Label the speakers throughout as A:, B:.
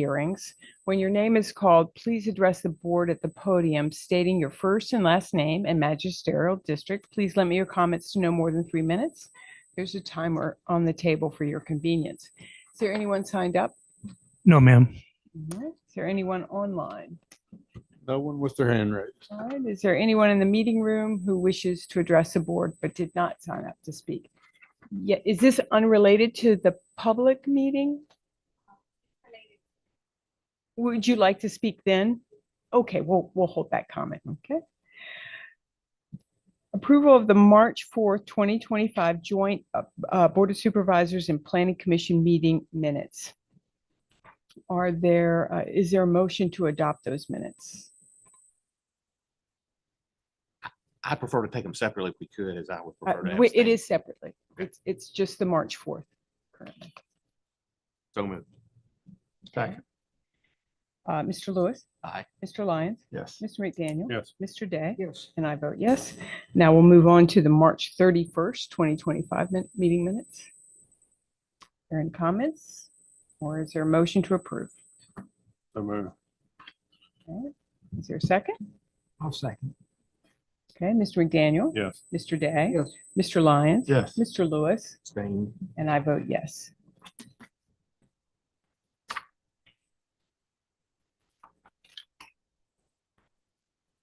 A: hearings. When your name is called, please address the board at the podium stating your first and last name and magisterial district. Please limit your comments to no more than three minutes. There's a timer on the table for your convenience. Is there anyone signed up?
B: No, ma'am.
A: All right. Is there anyone online?
C: No one with their hand raised.
A: All right. Is there anyone in the meeting room who wishes to address the board but did not sign up to speak? Yeah, is this unrelated to the public meeting? Would you like to speak then? Okay, we'll, we'll hold that comment, okay? Approval of the March 4th, 2025 Joint uh, uh, Board of Supervisors and Planning Commission Meeting Minutes. Are there, uh, is there a motion to adopt those minutes?
D: I prefer to take them separately if we could, as I would
A: Uh,
D: prefer to.
A: wait, It
D: abstain.
A: is separately. It's, it's just the March 4th currently.
D: So moved.
C: Second.
A: Uh, Mr. Lewis?
D: Aye.
A: Mr. Lyons?
C: Yes.
A: Mr. McDaniel?
C: Yes.
A: Mr. Day?
C: Yes.
A: And I vote yes. Now we'll move on to the March 31st, 2025 min- meeting minutes. Are there any comments? Or is there a motion to approve?
C: So moved.
A: Is there a second?
B: I'll second.
A: Okay, Mr. McDaniel?
C: Yes.
A: Mr. Day?
B: Yes.
A: Mr. Lyons?
C: Yes.
A: Mr. Lewis? And I vote yes.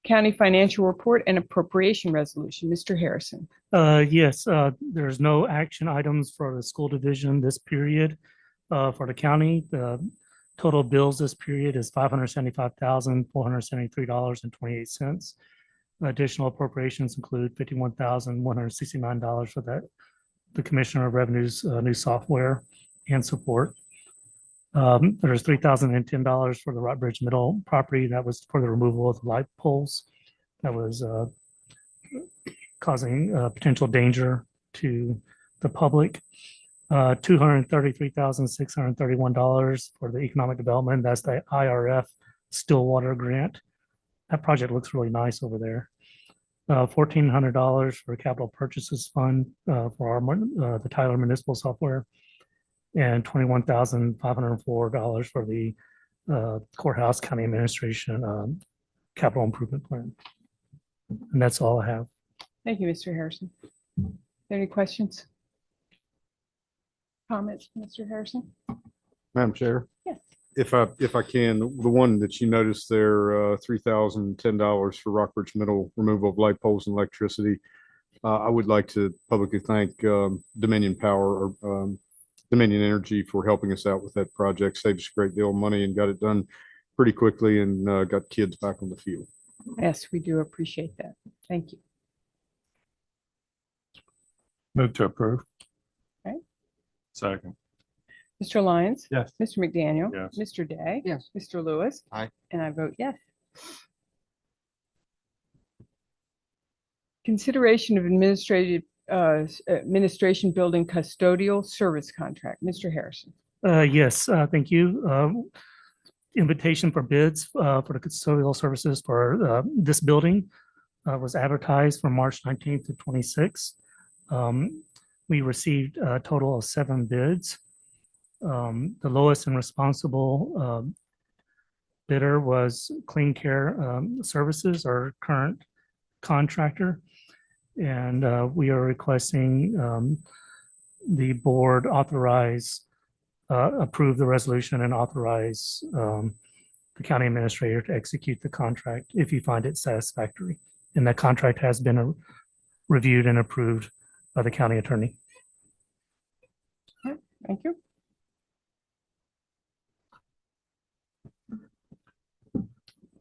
A: County Financial Report and Appropriation Resolution, Mr. Harrison.
B: Uh, yes, uh, there's no action items for the school division this period. Uh, for the county, the total bills this period is five hundred seventy-five thousand, four hundred seventy-three dollars and twenty-eight cents. Additional appropriations include fifty-one thousand, one hundred sixty-nine dollars for that, the Commissioner of Revenue's, uh, new software and support. Um, there's three thousand and ten dollars for the Rock Bridge Middle property. That was for the removal of the light poles. That was, uh, causing uh, potential danger to the public. Uh, Two hundred thirty-three thousand six hundred thirty-one dollars for the economic development. That's the IRF Stillwater grant. That project looks really nice over there. Uh, Fourteen hundred dollars for capital purchases fund uh, for our mun- uh, the Tyler Municipal Software, and twenty-one thousand five hundred four dollars for the uh, courthouse county administration um, capital improvement plan. And that's all I have.
A: Thank you, Mr. Harrison. Any questions? Comments, Mr. Harrison?
C: Madam Chair,
A: Yes.
C: if I, if I can, the one that you noticed there, uh, three thousand ten dollars for Rockbridge Middle removal of light poles and electricity. Uh, I would like to publicly thank, um, Dominion Power or, um, Dominion Energy for helping us out with that project. Saved us a great deal of money and got it done pretty quickly and, uh, got kids back on the field.
A: Yes, we do appreciate that. Thank you.
E: Move to approve.
A: Okay.
E: Second.
A: Mr. Lyons?
E: Yes.
A: Mr. McDaniel?
E: Yes.
A: Mr. Day?
D: Yes.
A: Mr. Lewis?
D: Aye.
A: And I vote yes. Consideration of administrative, uh, s- administration building custodial service contract. Mr. Harrison.
B: Uh, yes, uh, thank you. Um, Invitation for bids, uh, for the custodial services for, uh, this building, uh, was advertised from March nineteenth to twenty-sixth. Um, we received a total of seven bids. Um, the lowest and responsible, um, bidder was Clean Care, um, Services, our current contractor. And, uh, we are requesting, um, the board authorize, uh, approve the resolution and authorize um, the county administrator to execute the contract if you find it satisfactory. And that contract has been uh, reviewed and approved by the county attorney.
A: Thank you.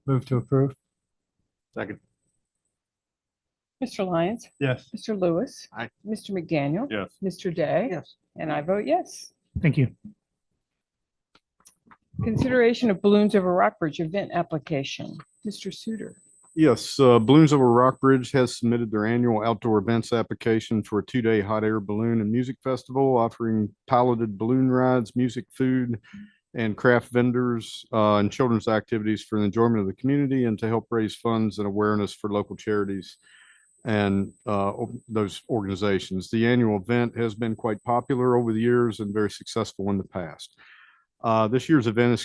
E: Move to approve.
D: Second.
A: Mr. Lyons?
E: Yes.
A: Mr. Lewis?
D: Aye.
A: Mr. McDaniel?
E: Yes.
A: Mr. Day? Yes. And I vote yes.
B: Thank you.
A: Consideration of balloons over Rockbridge event application. Mr. Suter.
C: Yes, uh, Balloons Over Rockbridge has submitted their annual outdoor events application for a two-day hot air balloon and music festival offering piloted balloon rides, music, food, and craft vendors, uh, and children's activities for the enjoyment of the community and to help raise funds and awareness for local charities and, uh, o- those organizations. The annual event has been quite popular over the years and very successful in the past. Uh, this year's event is